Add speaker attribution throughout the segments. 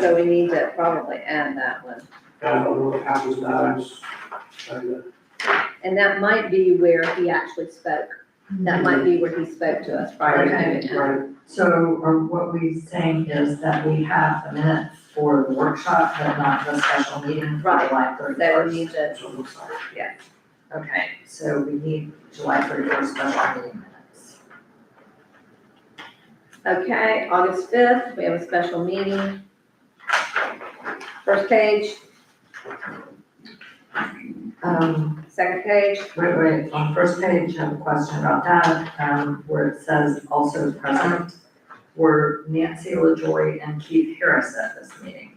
Speaker 1: so we need to probably add that one.
Speaker 2: I don't know what happens to those.
Speaker 1: And that might be where he actually spoke. That might be where he spoke to us prior to moving out.
Speaker 2: Right,
Speaker 3: So, or what we're saying is that we have the minutes for the workshop, but not the special meeting for
Speaker 1: Right.
Speaker 3: July thirty-first.
Speaker 1: So we need to,
Speaker 2: that's what it looks like.
Speaker 3: Okay, so we need July thirty-first special meeting minutes.
Speaker 1: okay, August fifth, we have a special meeting. First page,
Speaker 3: Um,
Speaker 1: second page,
Speaker 3: wait, wait, on first page, I have a question about that, um, where it says also present were Nancy LaJoy and Keith Harris at this meeting.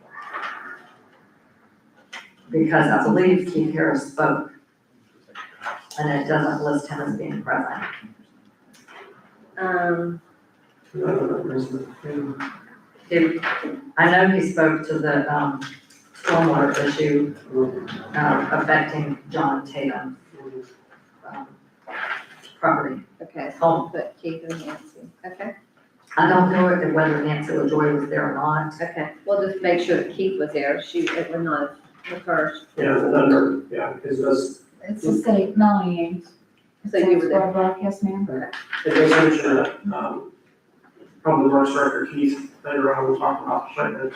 Speaker 3: Because I believe Keith Harris spoke, and it doesn't list him as being present.
Speaker 1: um,
Speaker 2: I don't know, there's the-
Speaker 3: Did, I know he spoke to the, um, stormwater issue, um, affecting John Tatum, um, property,
Speaker 1: okay, so
Speaker 3: home.
Speaker 1: put Keith and Nancy, okay?
Speaker 3: I don't know if- whether Nancy LaJoy was there or not.
Speaker 1: Okay, we'll just make sure that Keith was there, she, it was not the first,
Speaker 2: Yeah, the number, yeah, because those,
Speaker 4: It's the state, Melanie Ames.
Speaker 1: so you were there.
Speaker 4: Yes, ma'am.
Speaker 2: it does mention that, um, probably the worst record Keith, later on, we'll talk about the shipments.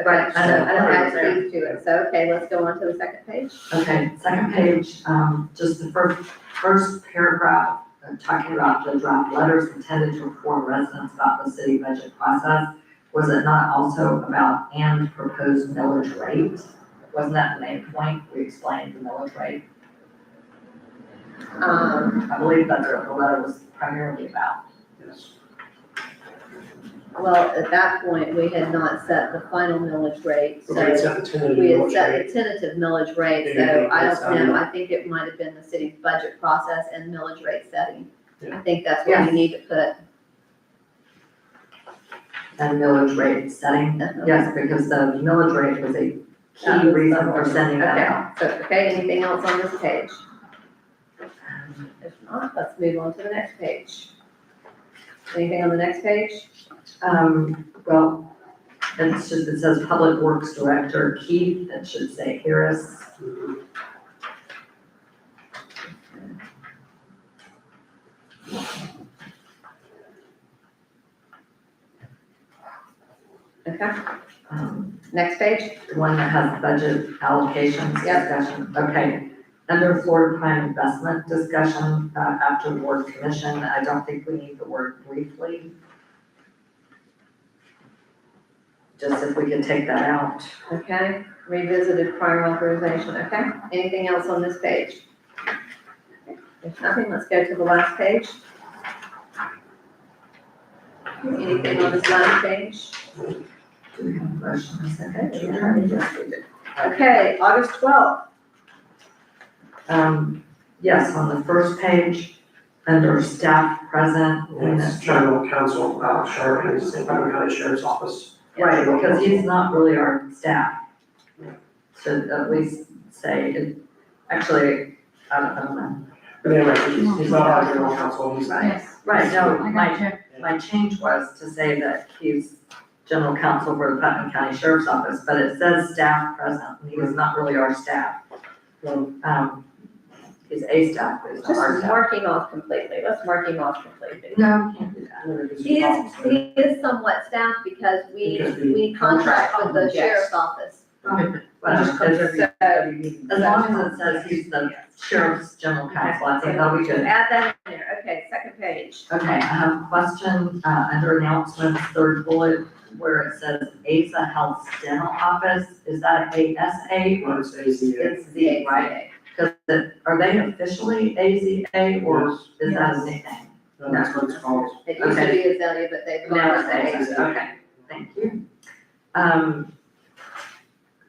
Speaker 1: Okay, I know, I know, I
Speaker 3: Right, right.
Speaker 1: see to it, so, okay, let's go on to the second page.
Speaker 3: Okay, second page, um, just the first, first paragraph, uh, talking about the draft letters intended to inform residents about the city budget process. Was it not also about and proposed millage rate? Wasn't that the main point? We explained the millage rate.
Speaker 1: Um,
Speaker 3: I believe that's what the letter was primarily about.
Speaker 2: Yes.
Speaker 1: well, at that point, we had not set the final millage rate,
Speaker 2: Okay, it's
Speaker 1: so
Speaker 2: at the tentative
Speaker 1: we had
Speaker 2: launch
Speaker 1: set
Speaker 2: date.
Speaker 1: the tentative millage rate,
Speaker 2: Yeah,
Speaker 1: so
Speaker 2: yeah,
Speaker 1: I
Speaker 2: that's
Speaker 1: don't know,
Speaker 2: fine.
Speaker 1: I think it might have been the city's budget process and millage rate setting. I
Speaker 2: Yeah.
Speaker 1: think that's what we
Speaker 3: Yes.
Speaker 1: need to put.
Speaker 3: And millage rate setting, yes, because the millage rate was a key reason for sending that out.
Speaker 1: um, Okay, so, okay, anything else on this page? If not, let's move on to the next page. Anything on the next page?
Speaker 3: Um, well, it's just, it says Public Works Director Keith, that should say Harris.
Speaker 2: Mhm.
Speaker 1: Okay,
Speaker 3: Um,
Speaker 1: next page,
Speaker 3: The one that has budget allocations
Speaker 1: Yep.
Speaker 3: discussion, okay. Under Florida Prime Investment discussion, uh, after the word commission, I don't think we need the word briefly. Just if we could take that out.
Speaker 1: okay, revisited prior authorization, okay? Anything else on this page? Okay, If nothing, let's go to the last page. Anything on this last page?
Speaker 3: Do we have a motion and a
Speaker 1: Okay, August twelfth,
Speaker 3: Um, yes, on the first page, under staff present,
Speaker 2: And it's general counsel, uh, sheriff, and it's in Putnam County Sheriff's Office.
Speaker 3: right, because he's not really our staff. Should at least say, it- actually, I don't know.
Speaker 2: But anyway, he's, he's not our general counsel, he's,
Speaker 4: Yes.
Speaker 3: Right, no,
Speaker 4: I
Speaker 3: my,
Speaker 4: got you.
Speaker 3: my change was to say that he's general counsel for the Putnam County Sheriff's Office, but it says staff present, and he was not really our staff. Um, he's a staff, but he's not
Speaker 1: just
Speaker 3: our staff.
Speaker 1: mark him off completely, let's mark him off completely.
Speaker 3: No, can't do that.
Speaker 1: He is, he is somewhat staff because we,
Speaker 2: Because we-
Speaker 1: we contract with the
Speaker 3: Yes.
Speaker 1: sheriff's office.
Speaker 3: Whatever, it's-
Speaker 1: So,
Speaker 3: As long as it says he's the sheriff's general counsel, I think that'll be good.
Speaker 1: Add that in there, okay, second page.
Speaker 3: Okay, I have a question, uh, under announcements, third bullet, where it says ASA Health Dental Office, is that ASA?
Speaker 2: Well, it's ACA.
Speaker 3: It's Z, right? Cause it, are they officially AZA or
Speaker 2: Yes.
Speaker 3: is that a nickname?
Speaker 2: No, That's what it's called.
Speaker 1: It used to be Azalea, but they've
Speaker 3: Now
Speaker 1: gone
Speaker 3: it's
Speaker 1: with
Speaker 3: AZA.
Speaker 1: A.
Speaker 3: Okay. Thank you. Um,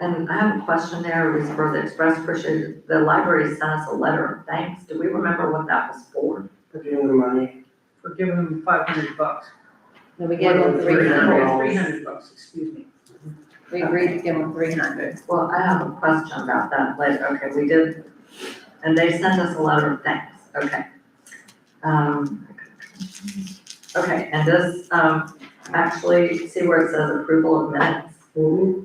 Speaker 3: and I have a question there, it was for the Express, appreciate, the library sent us a letter of thanks, do we remember what that was for?
Speaker 2: At the end of the money.
Speaker 5: for giving them five hundred bucks.
Speaker 1: And we gave them three hundred,
Speaker 5: Three hundred bucks, excuse me.
Speaker 1: we agreed to give them three hundred.
Speaker 3: Well, I have a question about that, like, okay, we did, and they sent us a letter of thanks, okay. Um, okay, and this, um, actually, see where it says approval of minutes?